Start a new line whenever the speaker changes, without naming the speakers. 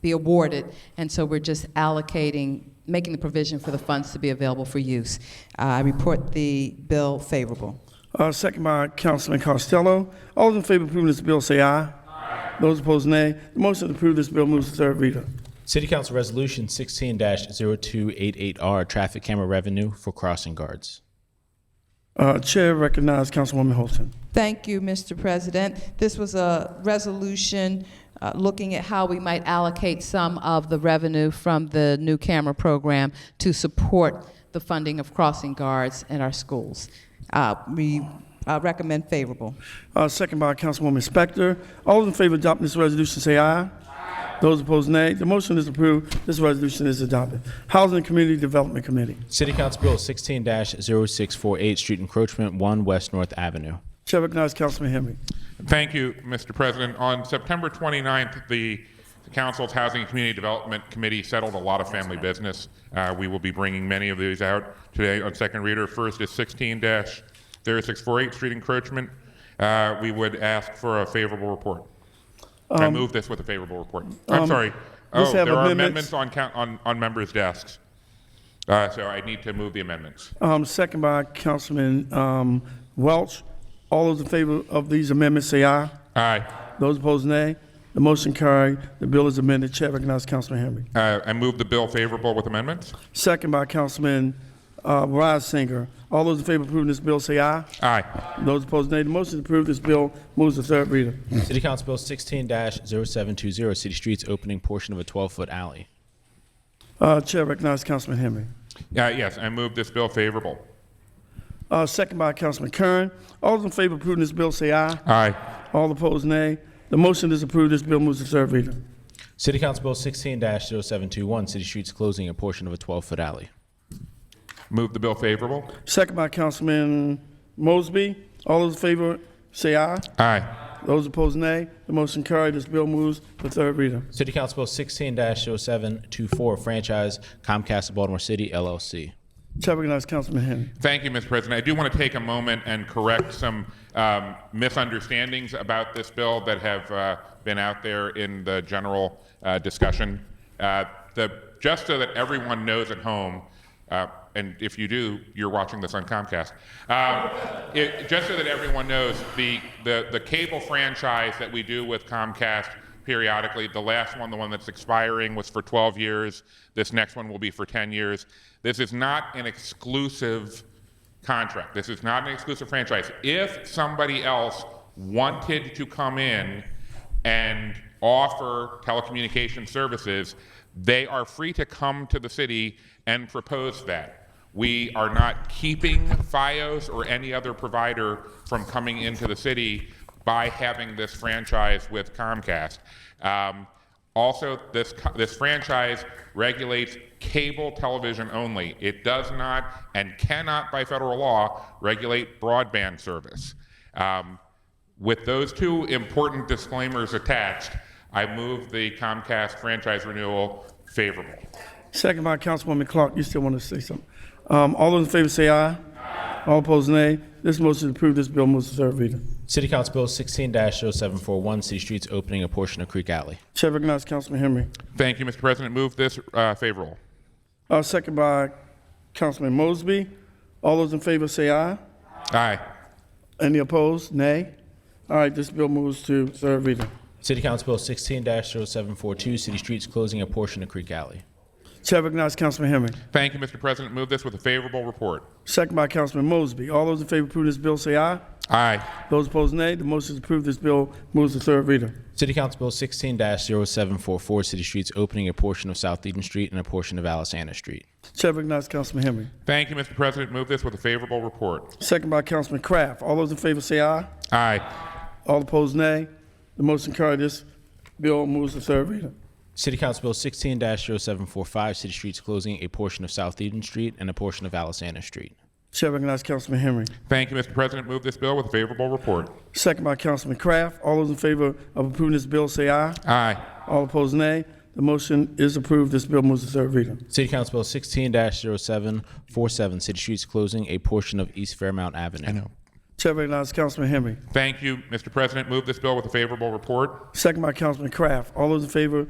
be awarded, and so we're just allocating, making the provision for the funds to be available for use. Uh, I report the bill favorable.
Uh, Second by Councilman Costello. All those in favor of approving this bill say aye. Aye. Those opposed, nay. The motion to approve this bill moves to third reader.
City Council Resolution 16-0288R, traffic camera revenue for crossing guards.
Uh, Chair recognizes Councilwoman Holton.
Thank you, Mr. President. This was a resolution uh, looking at how we might allocate some of the revenue from the new camera program to support the funding of crossing guards in our schools. Uh, We uh, recommend favorable.
Uh, Second by Councilwoman Spector. All those in favor of adopting this resolution say aye. Aye. Those opposed, nay. The motion is approved. This resolution is adopted. Housing and Community Development Committee.
City Council Bill 16-0648, street encroachment, 1 West North Avenue.
Chair recognizes Councilman Henry.
Thank you, Mr. President. On September 29th, the the Council's Housing and Community Development Committee settled a lot of family business. Uh, We will be bringing many of these out today on second reader. First is 16-0648, street encroachment. Uh, We would ask for a favorable report. I
Um,
move this with a favorable report. I'm sorry.
let's
Oh,
um, have
there are
amendments.
amendments on coun- on on members' desks. Uh, So I need to move the amendments.
Um, Second by Councilman um, Welch. All those in favor of these amendments say aye.
Aye.
Those opposed, nay. The motion carried. The bill is amended. Chair recognizes Councilman Henry.
Uh, I move the bill favorable with amendments.
Second by Councilman uh, Reisinger. All those in favor of approving this bill say aye.
Aye.
Those opposed, nay. The motion is approved. This bill moves to third reader.
City Council Bill 16-0720, city streets opening portion of a 12-foot alley.
Uh, Chair recognizes Councilman Henry.
Uh, yes, I move this bill favorable.
Uh, second by Councilman Kern. All those in favor of approving this bill say aye.
Aye.
All opposed, nay. The motion is approved. This bill moves to third reader.
City Council Bill 16-0721, city streets closing a portion of a 12-foot alley.
Move the bill favorable.
Second by Councilman Mosby. All those in favor say aye.
Aye.
Those opposed, nay. The motion carried. This bill moves to third reader.
City Council Bill 16-0724, franchise Comcast of Baltimore City LLC.
Chair recognizes Councilman Henry.
Thank you, Mr. President. I do want to take a moment and correct some um, misunderstandings about this bill that have uh, been out there in the general uh, discussion. Uh, the, just so that everyone knows at home, uh, and if you do, you're watching this on Comcast. Um, it, just so that everyone knows, the, the, the cable franchise that we do with Comcast periodically. The last one, the one that's expiring, was for 12 years. This next one will be for 10 years. This is not an exclusive contract. This is not an exclusive franchise. If somebody else wanted to come in and offer telecommunication services, they are free to come to the city and propose that. We are not keeping FiOS or any other provider from coming into the city by having this franchise with Comcast. Um, also, this, co- this franchise regulates cable television only. It does not and cannot, by federal law, regulate broadband service. Um, with those two important disclaimers attached, I move the Comcast franchise renewal favorable.
Second by Councilwoman Clark. You still want to say something? Um, all those in favor say aye. Aye. All opposed, nay. This motion is approved. This bill moves to third reader.
City Council Bill 16-0741, city streets opening a portion of Creek Alley.
Chair recognizes Councilman Henry.
Thank you, Mr. President. Move this uh, favorable.
Uh, second by Councilman Mosby. All those in favor say aye.
Aye.
Any opposed? Nay. All right, this bill moves to third reader.
City Council Bill 16-0742, city streets closing a portion of Creek Alley.
Chair recognizes Councilman Henry.
Thank you, Mr. President. Move this with a favorable report.
Second by Councilman Mosby. All those in favor of approving this bill say aye.
Aye.
Those opposed, nay. The motion is approved. This bill moves to third reader.
City Council Bill 16-0744, city streets opening a portion of South Eden Street and a portion of Alisana Street.
Chair recognizes Councilman Henry.
Thank you, Mr. President. Move this with a favorable report.
Second by Councilman Kraft. All those in favor say aye.
Aye.
All opposed, nay. The motion carried. This bill moves to third reader.
City Council Bill 16-0745, city streets closing a portion of South Eden Street and a portion of Alisana Street.
Chair recognizes Councilman Henry.
Thank you, Mr. President. Move this bill with a favorable report.
Second by Councilman Kraft. All those in favor of approving this bill say aye.
Aye.
All opposed, nay. The motion is approved. This bill moves to third reader.
City Council Bill 16-0747, city streets closing a portion of East Fairmount Avenue.
Chair recognizes Councilman Henry.
Thank you, Mr. President. Move this bill with a favorable report.
Second by Councilman Kraft. All those in favor